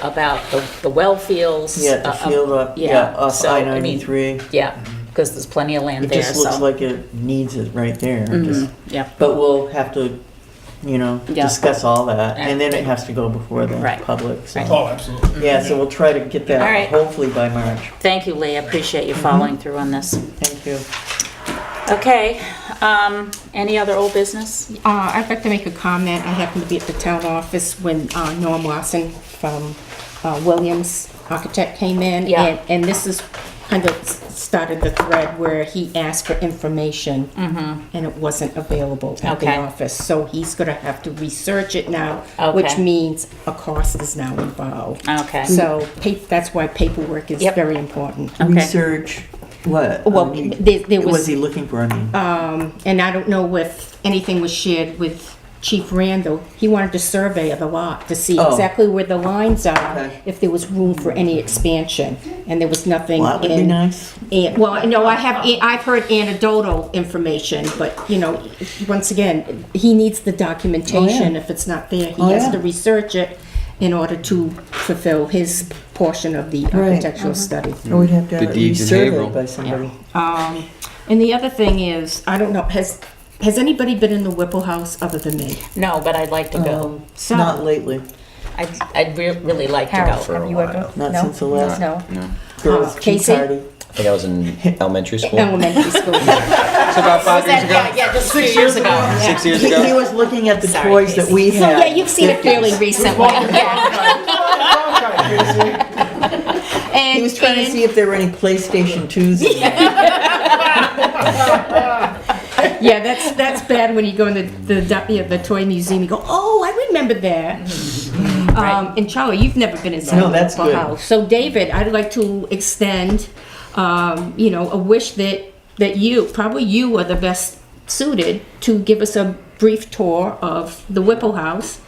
about the, the well fields. Yeah, the uh, um, field up, yeah, off so, I mean, ninety-three. Yeah, because there's plenty of land It there, just looks so- like it needs it right there. Just- Mhm, Yeah, But we'll have to, you know, Yeah. discuss all that, and then it has to go before the Right. public, so. Oh, absolutely. Yeah, so we'll try to get All that right. hopefully by March. thank you, Lee, I appreciate Mm-hmm. you following through on this. Thank you. Okay, um, any other old business? Uh, I'd like to make a comment. I happened to be at the town office when uh, Norm Lawson from uh, Williams Architect came in. Yeah. And, and this is kind of started the thread where he asked for information and it wasn't available at Mm-hmm. Okay. the office. So he's going to have to research it now, which Okay. means a cost is now involved. Okay. So pa- that's why paperwork is Yep. very important. Okay. Research, what? Well, I mean, there- there what Was was- he looking for, I mean? Um, And I don't know if anything was shared with Chief Randall. He wanted a survey of the lot to see Oh. exactly where the lines are, Okay. if there was room for any expansion, and there was nothing. Well, that would be in- nice. and- Well, no, I have, I've heard anecdotal information, but, you know, once again, he needs the documentation. If it's not there, Oh, he has yeah. to research it in order to fulfill his portion of the Right. architectural study. Or we'd have to The have it deeds in resurveyed Haverhill. by somebody. Um, and the other thing is, I don't know, has, has anybody been in the Whipple House other than me? No, but I'd like to go. So, Um, Not lately, I'd, I'd re- really like to Harold, go. for a have you while. ever? not no? since the last No. No. girls' tea Casey? party. I think I was in elementary school. elementary school. It's about five years ago. yeah, just six years ago. Six He years he ago. was looking at the Sorry, toys that we So, had. yeah, you've seen it fairly recently. He was trying to see if there were any PlayStation 2s in there. Yeah, that's, that's bad when you go in the, the, du- yeah, the toy museum, you go, oh, I remember that. Mm-hmm. Um, and Charlie, you've never been inside No, the that's Whipple good. House. So David, I'd like to extend, um, you know, a wish that, that you, probably you are the best suited to give us a brief tour of the Whipple House,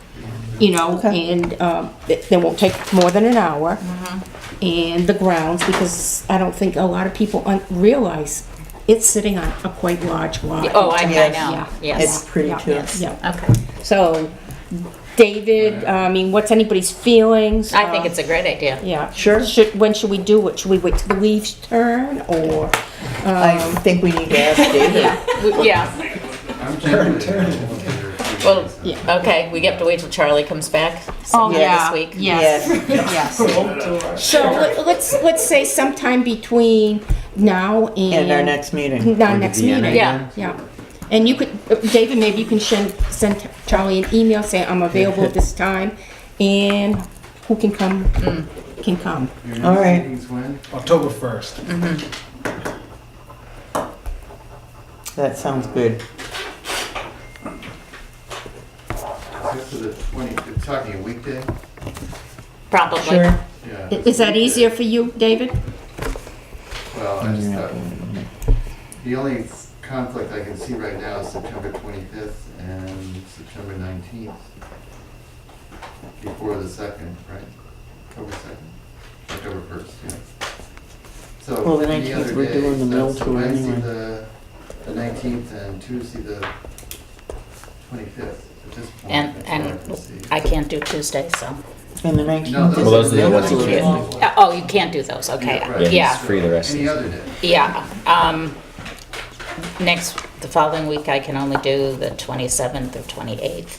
you know, Okay. and, um, it, it won't take more than an hour. Mm-hmm. And the grounds, because I don't think a lot of people un- realize it's sitting on a quite large lot. Oh, I, I Yes. know, Yeah. It's yes. pretty Yeah, too. yes. Yeah. Okay, So, David, I mean, what's anybody's feelings? I think Uh, it's a great idea. Yeah. Sure. Should, when should we do it? Should we wait till the leaves turn or? I think we need to ask David. We- Yeah, well, okay, we have to wait till Charlie comes back Oh, sometime this yeah, week. Yes, yes. So let- let's, let's say sometime between now and. And our next meeting. Our next meeting. Yeah. Yeah. And you could, uh, David, maybe you can shen- send Charlie an email saying, I'm available at this time and who can come, can come. All right. October 1st. That sounds good. Except for the 20, it's talking a weekday? Probably. Sure. Yeah. I- Is that easier for you, David? Well, I just thought, the only conflict I can see right now is September 25th and September 19th. Before the 2nd, right? October 2nd? October 1st, yeah. So Well, the any 19th, other we're day, doing the mill that's tour Wednesday, anyway. the the 19th and Tuesday, the 25th at this point. And- that's all and can see. I can't do Tuesday, so. And the No, 19th those is. Well, those are are the the ones you only can't ones. Uh, Oh, you can't do those, okay, Yeah, right. Yeah, yeah. he's free the rest of Any the other day. Yeah, um, next, the following week, I can only do the 27th or 28th,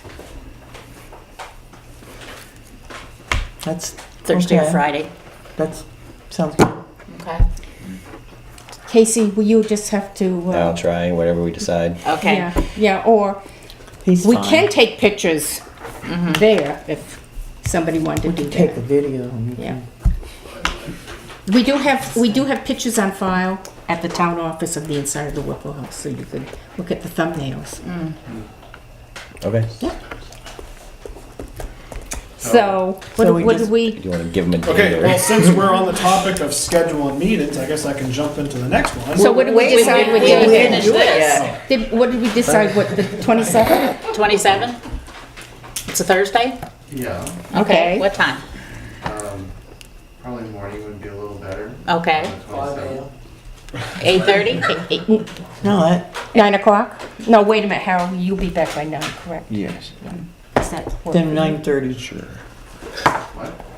That's. Thursday or okay. Friday. That's, sounds good. Okay, Casey, will you just have to? uh, I'll try whatever we decide. okay. Yeah, yeah, or He's we fine. Mm-hmm. can take pictures there if somebody wanted to do Take the that. video. and you Yeah. can- We do have, we do have pictures on file at the town office of the inside of the Whipple House, so you could look at the thumbnails. Mm. Okay. So, what So do- we what do just- we, You want to give him a day Okay, or- well, since we're on the topic of scheduling meetings, I guess I can jump into the next one. so what did we Wait, decide we with didn't David? finish this. Oh, Did- What did we decide with the 27th? 27? It's a Thursday? Yeah. Okay. What time? Um, Probably morning would be a little better. Okay. On the 27th. 8:30? No, that, 9 o'clock? No, wait a minute, Harold, you'll be back by 9, correct? Mm. Yes. Is that? then 9:30. Sure. What?